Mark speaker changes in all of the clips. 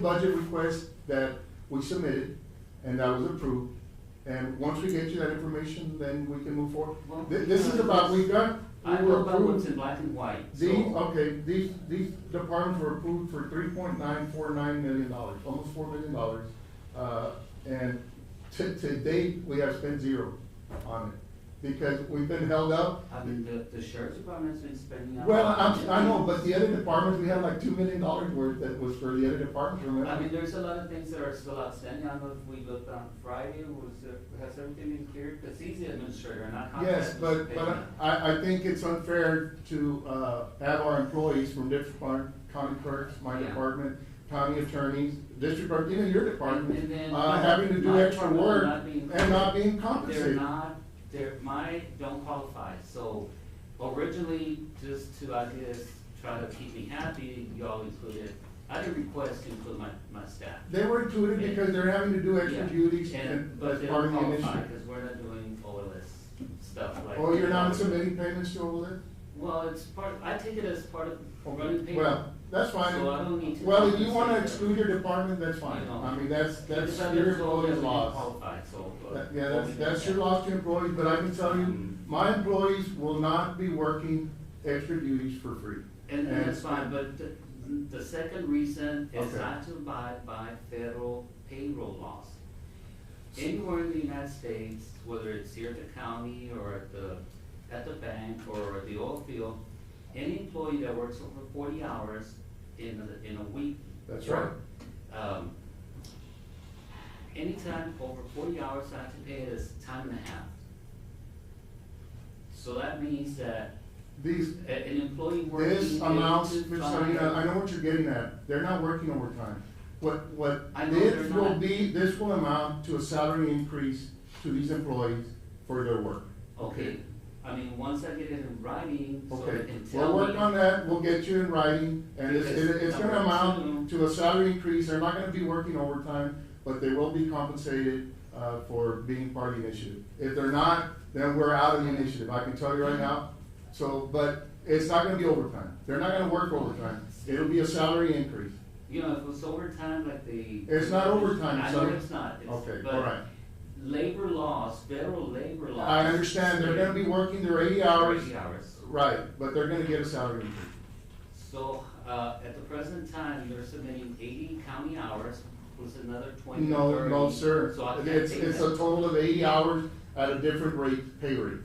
Speaker 1: budget request that we submitted and that was approved. And once we get you that information, then we can move forward.
Speaker 2: Well,
Speaker 1: Thi- This is about, we got, we
Speaker 2: I
Speaker 1: were
Speaker 2: know about what's
Speaker 1: approved.
Speaker 2: in black and white,
Speaker 1: The, e-
Speaker 2: so. um,
Speaker 1: okay, these, these departments were approved for three point nine four nine million dollars, almost four million dollars. Uh, and to, to date, we have spent zero on it because we've been held up.
Speaker 2: I mean, the, the sheriff's department's been spending. a
Speaker 1: Well,
Speaker 2: lot of
Speaker 1: I'm, I know,
Speaker 2: money.
Speaker 1: but the other departments, we had like two million dollars worth that was for the other departments, remember?
Speaker 2: I mean, there's a lot of things that are still outstanding. I don't know if we looked on Friday, was, there- has everything been cleared? Because he's the administrator and I contact.
Speaker 1: Yes, but, but I, I think it's unfair to, uh, have our employees from district clerk, county clerks, my
Speaker 2: Yeah.
Speaker 1: department, county attorneys, district clerk, even your
Speaker 2: And
Speaker 1: department,
Speaker 2: then-
Speaker 1: uh, having to do
Speaker 2: My
Speaker 1: extra
Speaker 2: department
Speaker 1: work
Speaker 2: not being-
Speaker 1: and not being
Speaker 2: They're
Speaker 1: compensated.
Speaker 2: not, they're, my don't qualify, so originally, just to, I guess, try to keep me happy, y'all included, I didn't request to include my, my staff.
Speaker 1: They were included because they're having to do
Speaker 2: Yeah,
Speaker 1: extra duties
Speaker 2: and-
Speaker 1: and
Speaker 2: But
Speaker 1: as
Speaker 2: they
Speaker 1: part
Speaker 2: don't
Speaker 1: of the
Speaker 2: qualify,
Speaker 1: initiative.
Speaker 2: because we're not doing OLS stuff like.
Speaker 1: Oh, you're not submitting payments to all that?
Speaker 2: Well, it's part, I take it as part of running paper.
Speaker 1: Well, that's fine.
Speaker 2: So I don't need to
Speaker 1: Well, if you wanna
Speaker 2: compensate
Speaker 1: exclude your department, that's fine.
Speaker 2: know.
Speaker 1: I mean, that's, that's
Speaker 2: Because I
Speaker 1: your
Speaker 2: was told that
Speaker 1: employee's
Speaker 2: we
Speaker 1: loss.
Speaker 2: Qualified, so. uh,
Speaker 1: That- Yeah, that's,
Speaker 2: only
Speaker 1: that's your
Speaker 2: that.
Speaker 1: loss to employees, but I can tell you,
Speaker 2: Mm.
Speaker 1: my employees will not be working extra duties for free.
Speaker 2: And, and that's fine, but the, the second reason is
Speaker 1: Okay.
Speaker 2: not to abide by federal payroll laws. Anywhere in the United States, whether it's here at the county or at the, at the bank or at the oil field, any employee that works over forty hours in a, in a week.
Speaker 1: That's right.
Speaker 2: Um, anytime over forty hours, I have to pay it as time and a half. So that means that
Speaker 1: These,
Speaker 2: a- An employee working.
Speaker 1: this amounts,
Speaker 2: eight to
Speaker 1: Ms.
Speaker 2: five-
Speaker 1: Sarina, I know what you're getting at, they're not working overtime. What, what,
Speaker 2: I know they're
Speaker 1: this will
Speaker 2: not.
Speaker 1: be, this will amount to a salary increase to these employees for their work.
Speaker 2: Okay, I mean, once I get it in writing, so they
Speaker 1: Okay,
Speaker 2: can tell me.
Speaker 1: we'll work on that, we'll get you in writing, and it's,
Speaker 2: Because
Speaker 1: it- it's gonna
Speaker 2: number
Speaker 1: amount
Speaker 2: two-
Speaker 1: to a salary increase, they're not gonna be working overtime, but they will be compensated, uh, for being part of the initiative. If they're not, then we're out of the initiative, I can tell you right now, so, but it's not gonna be overtime, they're not gonna work overtime, it'll be a salary increase.
Speaker 2: You know, if it's overtime, like the.
Speaker 1: It's not overtime,
Speaker 2: I
Speaker 1: so-
Speaker 2: know it's not, it's,
Speaker 1: Okay, all right.
Speaker 2: but labor laws, federal labor laws.
Speaker 1: I understand, they're gonna be working their eighty hours,
Speaker 2: Eighty hours.
Speaker 1: right, but they're gonna get a salary increase.
Speaker 2: So, uh, at the present time, they're submitting eighty county hours, plus another twenty, thirty.
Speaker 1: No, no, sir,
Speaker 2: So I can't
Speaker 1: it's,
Speaker 2: take
Speaker 1: it's
Speaker 2: that.
Speaker 1: a total of eighty hours at a different rate, pay rate.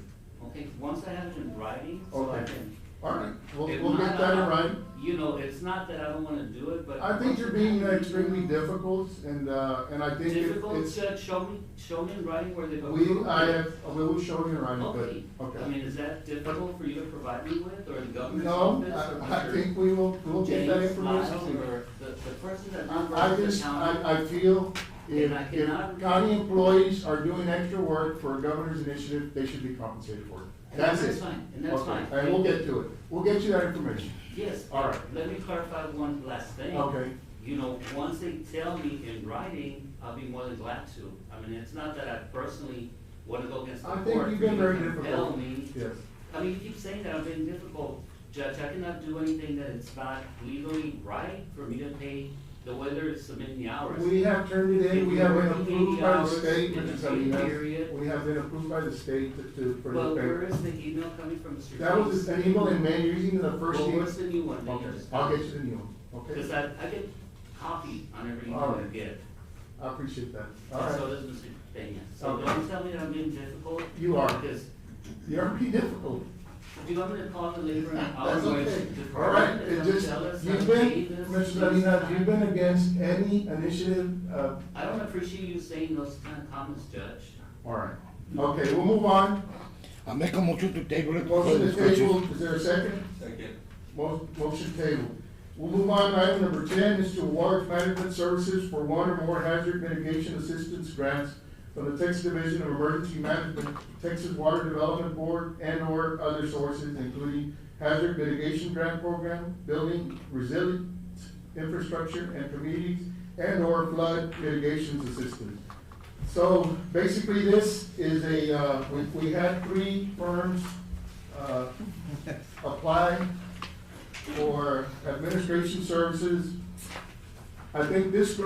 Speaker 2: Okay, once I have it in writing, so I
Speaker 1: Okay.
Speaker 2: can.
Speaker 1: All right, we'll,
Speaker 2: If
Speaker 1: we'll get
Speaker 2: not, uh,
Speaker 1: that in
Speaker 2: I-
Speaker 1: writing.
Speaker 2: You know, it's not that I don't wanna do it, but.
Speaker 1: I think you're being extremely difficult and, uh, and I think it-
Speaker 2: Difficult,
Speaker 1: it's,
Speaker 2: to show me, show me in writing where they go.
Speaker 1: we, I have, we will show you around,
Speaker 2: Okay,
Speaker 1: but,
Speaker 2: I
Speaker 1: okay.
Speaker 2: mean, is that difficult for you to provide me with, or the governor's
Speaker 1: No,
Speaker 2: office? or
Speaker 1: I, I
Speaker 2: uh, Mr.
Speaker 1: think we will, we'll get that
Speaker 2: James Lyle,
Speaker 1: information.
Speaker 2: Or the, the person that
Speaker 1: I, I
Speaker 2: runs
Speaker 1: just,
Speaker 2: the county?
Speaker 1: I, I feel if,
Speaker 2: And I
Speaker 1: if
Speaker 2: cannot-
Speaker 1: county employees are doing extra work for a governor's initiative, they should be compensated for it.
Speaker 2: And
Speaker 1: That's it.
Speaker 2: that's fine, and that's
Speaker 1: Okay,
Speaker 2: fine.
Speaker 1: And we'll get to it. We'll get you that information.
Speaker 2: Yes.
Speaker 1: All right.
Speaker 2: Let me clarify one last thing.
Speaker 1: Okay.
Speaker 2: You know, once they tell me in writing, I'll be more than glad to. I mean, it's not that I personally wanna go against the
Speaker 1: I
Speaker 2: court.
Speaker 1: think you've been
Speaker 2: for
Speaker 1: very
Speaker 2: you to compel
Speaker 1: difficult.
Speaker 2: me
Speaker 1: Yes.
Speaker 2: I mean, you keep saying that I'm being difficult, Judge, I cannot do anything that it's not legally right for me to pay the weather is submitting the hours.
Speaker 1: We have turned it in, we have been approved by the state,
Speaker 2: In
Speaker 1: which
Speaker 2: the
Speaker 1: is, I mean,
Speaker 2: pay
Speaker 1: that's-
Speaker 2: period.
Speaker 1: we have been approved by the state to, to, for
Speaker 2: Well,
Speaker 1: the
Speaker 2: where
Speaker 1: paper.
Speaker 2: is the email coming from, Mr.
Speaker 1: That was
Speaker 2: Jones?
Speaker 1: an email in May, you're using the first
Speaker 2: Well,
Speaker 1: email.
Speaker 2: where's the new one? that you
Speaker 1: Okay,
Speaker 2: just-
Speaker 1: I'll get you the new one,
Speaker 2: Cause
Speaker 1: okay?
Speaker 2: I, I get copied on every
Speaker 1: All
Speaker 2: email
Speaker 1: right.
Speaker 2: I get,
Speaker 1: I appreciate that. All
Speaker 2: and so
Speaker 1: right,
Speaker 2: does Mr. Pena. So
Speaker 1: Okay.
Speaker 2: don't tell me that I'm being difficult.
Speaker 1: You are.
Speaker 2: Because,
Speaker 1: you're pretty difficult.
Speaker 2: do you want me to call the labor and
Speaker 1: That's
Speaker 2: hours
Speaker 1: okay. All right,
Speaker 2: department
Speaker 1: it
Speaker 2: and
Speaker 1: just,
Speaker 2: Oh, tell us how
Speaker 1: you've
Speaker 2: to pay
Speaker 1: been,
Speaker 2: this?
Speaker 1: Mr.
Speaker 2: this
Speaker 1: Medina,
Speaker 2: time?
Speaker 1: you've been against any initiative, uh,
Speaker 2: I don't appreciate you saying those kind of comments, Judge.
Speaker 1: all right. Okay, we'll move on.
Speaker 3: I make a motion to table it for
Speaker 1: Motion to table,
Speaker 3: discussion.
Speaker 1: is there a second?
Speaker 4: Second.
Speaker 1: Mo- Motion table. We'll move on to item number ten, is to award management services for one or more hazard mitigation assistance grants from the Texas Division of Emergency Management, Texas Water Development Board, and/or other sources, including hazard mitigation grant program, building resilient infrastructure and communities, and/or flood mitigation assistance. So basically, this is a, uh, we, we had three firms, uh, apply for administration services I think this